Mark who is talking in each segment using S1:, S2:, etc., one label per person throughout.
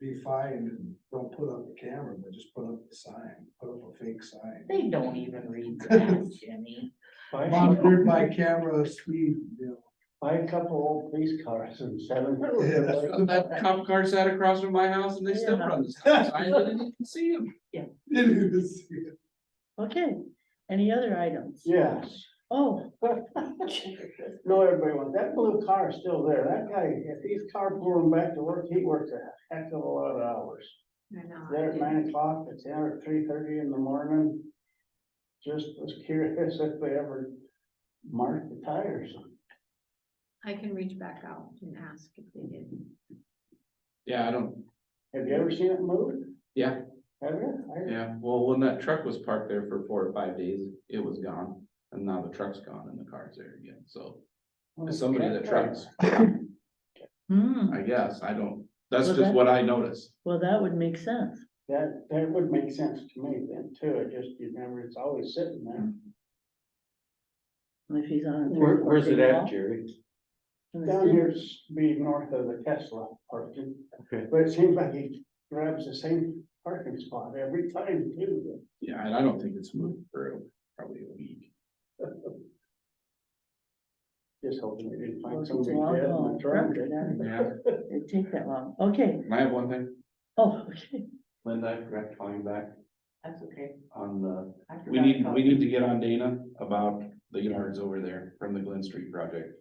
S1: be fine, don't put up the camera, but just put up the sign, put up a fake sign.
S2: They don't even read that, Jimmy.
S1: Monitored by camera speed, you
S3: Buy a couple old police cars and seven.
S1: know. Yeah, that's-
S4: That cop car sat across from my house and they still
S2: Yeah.
S4: run the stop sign, I didn't even see him.
S1: it is.
S2: Okay, any other items?
S3: Yes,
S2: Oh,
S3: no, everybody wants, that blue car is still there, that guy, if he's carpooling back to work, he works a heck of a lot of hours.
S5: I know. I
S3: There at
S5: did.
S3: nine o'clock, it's there at three thirty in the morning. Just was curious if they ever marked the tires.
S5: I can reach back out and ask if they did.
S4: Yeah, I don't,
S3: Have you ever seen it moved?
S4: yeah,
S3: Have you? I-
S4: yeah, well, when that truck was parked there for four or five days, it was gone, and now the truck's gone and the car's there again, so. It's somebody that trucks,
S2: hmm,
S4: I guess, I don't, that's
S2: Well,
S4: just
S2: that-
S4: what I noticed,
S2: well, that would make sense.
S3: That, that would make sense to me then too, it just, you never, it's always sitting there.
S2: If he's on. a
S6: Where,
S2: three-foot
S6: where's it
S2: big
S6: at,
S2: wall
S6: Jerry?
S2: in the
S3: Down
S2: city.
S3: here's be north of the Tesla parking.
S6: Okay.
S3: But it seems like he grabs the same parking spot every time too.
S4: yeah, and I don't think it's moved through, probably a week.
S3: Just hoping they didn't
S2: Well,
S3: find
S2: if it's a
S3: somebody
S2: long
S3: dead in
S2: haul
S3: the truck.
S2: truck, then
S4: Yeah,
S2: It'd take that long, okay,
S4: and I have one thing,
S2: oh, okay.
S6: Linda, I forgot calling back
S2: That's okay.
S6: on the,
S4: we need, we need to get on Dana about the yards over there from the Glen Street project,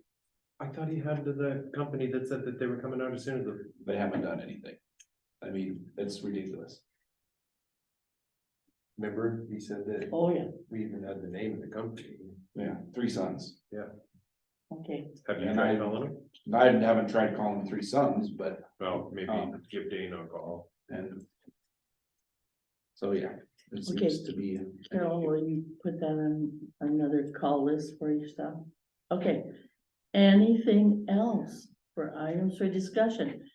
S7: I thought he had the, the company that said that they were coming out as soon as the.
S4: they haven't done anything. I mean, it's ridiculous,
S7: Remember, he said that
S2: Oh, yeah,
S7: we even had the name of the company.
S4: yeah, three sons.
S2: okay,
S7: Have
S4: Yeah,
S7: you
S4: I-
S7: tried calling him?
S4: I haven't tried calling the three sons, but,
S7: Well, maybe
S4: Oh.
S7: give Dana a call.
S4: and. So, yeah, it
S2: Okay.
S4: seems to be.
S2: Carol, will you put that on another call list for yourself? Okay, anything else for items for discussion?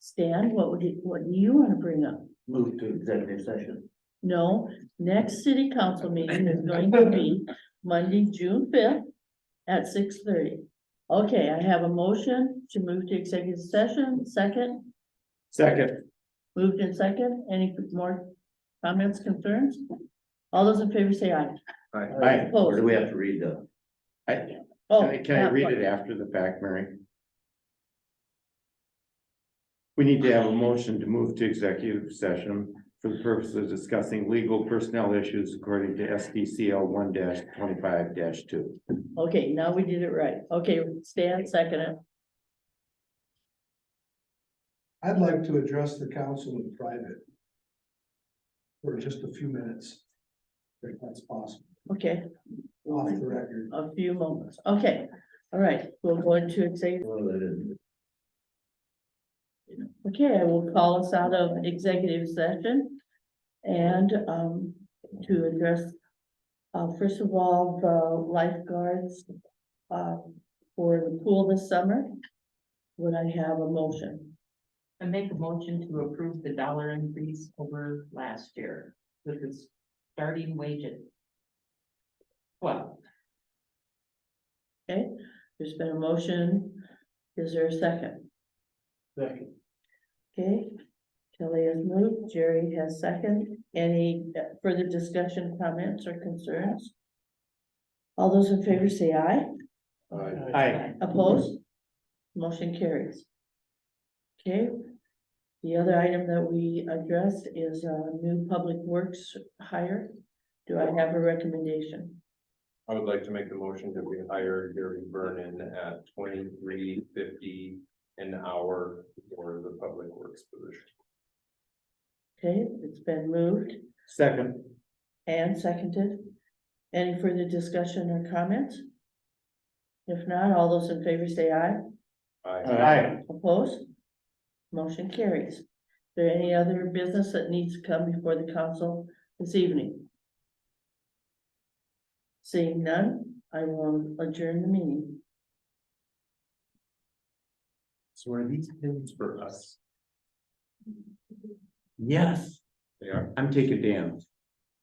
S2: Stan, what would you, what do you wanna bring up?
S3: Move to executive session.
S2: No, next city council meeting is going to be Monday, June fifth at six thirty. Okay, I have a motion to move to executive session, second,
S4: Second.
S2: moved in second, any more comments, concerns? All those in favor say aye.
S6: I, or
S2: Opposed?
S6: do we have to read the,
S2: Oh,
S6: can I, can I
S2: that
S6: read
S2: part.
S6: it after the fact, Mary? We need to have a motion to move to executive session for the purpose of discussing legal personnel issues according to SDCL one twenty-five two.
S2: Okay, now we did it right. Okay, Stan, second it.
S1: I'd like to address the council in private. For just a few minutes. If that's possible,
S2: Okay,
S1: off the record.
S2: a few moments. Okay, all right, we'll go into executive. Okay, I will call us out of executive session and um to address. Uh, first of all, the lifeguards uh for the pool this summer. Would I have a motion?
S8: I make a motion to approve the dollar increase over last year with the starting wage at twelve.
S2: Okay, there's been a motion. Is there a second?
S3: Second.
S2: Okay, Kelly has moved, Jerry has second. Any uh, further discussion, comments or concerns? All those in favor say aye.
S6: Aye.
S2: Opposed? Motion carries. Okay. The other item that we addressed is uh new public works hire. Do I have a recommendation?
S7: I would like to make the motion that we hire Gary Vernon at twenty-three fifty an hour for the public works position.
S2: Okay, it's been moved
S6: Second.
S2: and seconded. Any further discussion or comments? If not, all those in favor say aye.
S6: Aye.
S2: Opposed? Motion carries. Is there any other business that needs to come before the council this evening? Seeing none, I will adjourn the meeting.
S7: So are these pins for us?
S6: Yes,
S7: They are.
S6: I'm taking Dan.